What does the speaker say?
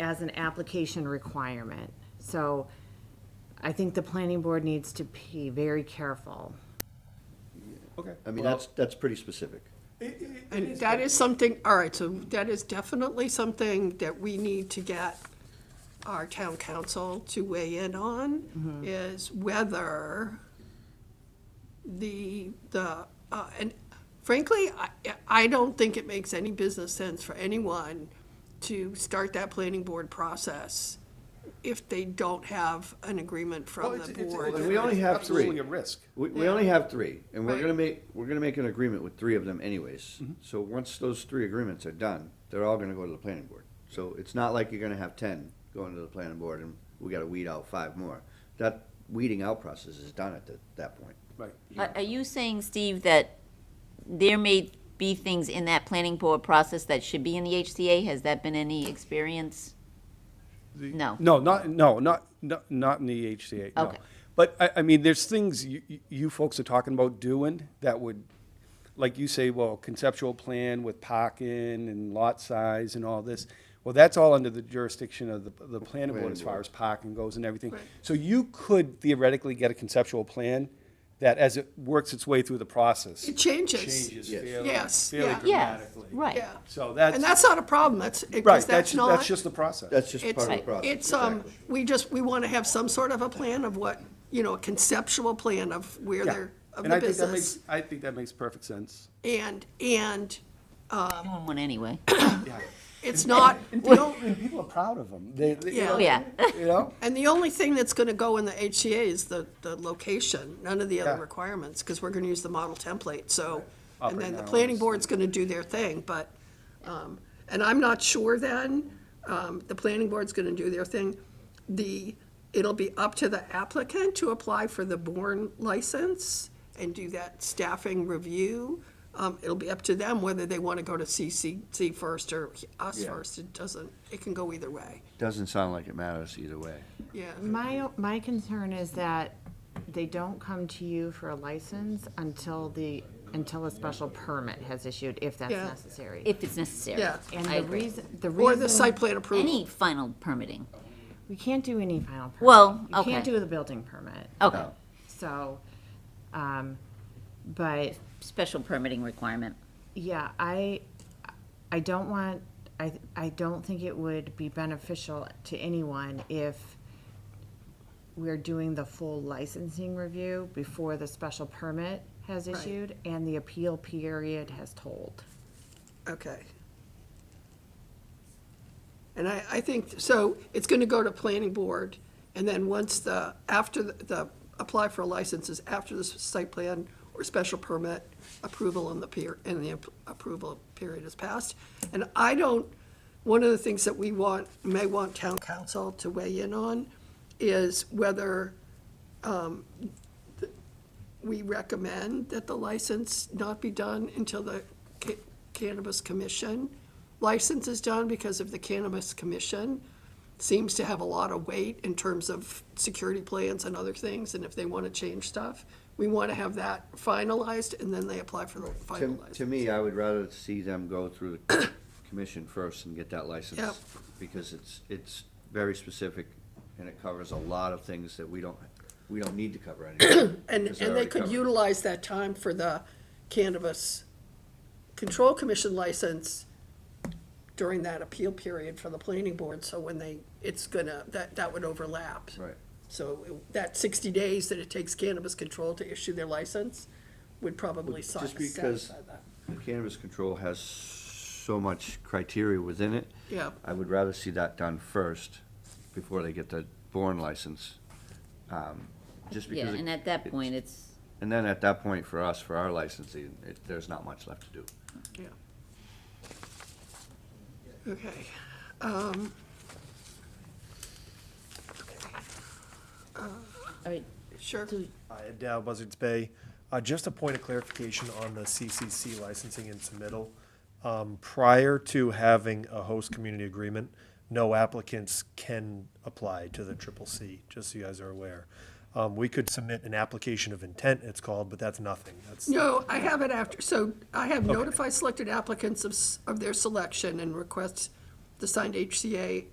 as an application requirement. So I think the planning board needs to be very careful. Okay. I mean, that's, that's pretty specific. And that is something, all right, so that is definitely something that we need to get our town council to weigh in on, Mm-hmm. is whether the, the, uh, and frankly, I, I don't think it makes any business sense for anyone to start that planning board process if they don't have an agreement Well, from it's- the it's- board. it's We only have three. Absolutely a risk. We, we only have three, and we're Right. gonna make, we're gonna make an agreement with three of them anyways. Mm-hmm. So once those three agreements are done, they're all gonna go to the planning board. So it's not like you're gonna have ten going to the planning board and we gotta weed out five more. That weeding out process is done at the, that point. Right. Are are you saying, Steve, that there may be things in that planning board process that should be in the HCA? Has that been any experience? No. No, not, no, not, not, not in the HCA, no. Okay. But I, I mean, there's things you, you- you folks are talking about doing that would, like you say, well, conceptual plan with parking and lot size and all this. Well, that's all under the jurisdiction of the, the planning board as far as parking goes and everything. So you could theoretically get a conceptual plan that as it works its way through the process. It changes. Changes Yes. fairly, Yes, fairly yeah. Yes, dramatically. right. Yeah. So that's, And that's not a problem, that's, right, because that's, that's ju- not. that's just the process. That's just part of the It's, process. it's, um, exactly. we just, we want to have some sort of a plan of what, you know, a conceptual plan of where Yeah. they're, of And the I think that business. makes, I think that makes perfect sense. And, and Doing one anyway. it's not, You know, and people are proud of them. They, they- you Yeah. know, Oh, yeah. You know? and the only thing that's going to go in the HCA is the, the location, none of the Yeah. other requirements, because we're going to use the model template, so. And then the Operating planning hours. board's going to do their thing, but, um, and I'm not sure then, um, the planning board's going to do their thing. The, it'll be up to the applicant to apply for the born license and do that staffing review. Um, it'll be up to them whether they want to go to CCC first or us Yeah. first, it doesn't, it can go either way, Doesn't sound like it matters either way. yeah. My, my concern is that they don't come to you for a license until the, until a special permit has issued, if that's Yeah. necessary. If it's necessary. Yeah. And I the agree. reason, the Or the reason, site plan approval. Any final permitting. we can't do any final permit. Well, You can't okay. do the building permit, Okay, so, um, but special permitting requirement. Yeah, I, I don't want, I, I don't think it would be beneficial to anyone if we're doing the full licensing review before the special permit has issued and the appeal period has told. Okay. And I, I think, so it's gonna go to planning board, and then once the, after the- the, apply for licenses, after the s- site plan or special permit approval and the peer, and the ap- approval period is passed. And I don't, one of the things that we want, may want town council to weigh in on is whether um, we recommend that the license not be done until the ca- Cannabis Commission license is done, because if the Cannabis Commission seems to have a lot of weight in terms of security plans and other things, and if they want to change stuff, we want to have that finalized, and then they apply for the final To, to license. me, I would rather see them go through the commission first and get that license. Yep. Because it's, it's very specific and it covers a lot of things that we don't, we don't need to cover anymore. And, because they're and they already could covered. utilize that time for the Cannabis Control Commission license during that appeal period for the planning board, so when they, it's gonna, that, that would overlap. Right. So it- that sixty days that it takes Cannabis Control to issue their license would probably si- Just because satisfy that. the cannabis control has so much criteria within it. Yeah. I would rather see that done first before they get the born license. um, Just Yeah, because. it- and at that point, it's, And then at that point, for us, for our licensing, it, there's not much left to do. Yeah. Okay. all right, Sure. so Hi, Ed uh, Dow, Buzzards Bay. Uh, Just a point of clarification on the CCC licensing and submittal. Um, Prior to having a host community agreement, no applicants can apply to the triple C, just so you guys are aware. Um, We could submit an application of intent, it's called, but that's nothing. That's, No, I have it after, so I have notify selected applicants of, s- of their selection and request the signed HCA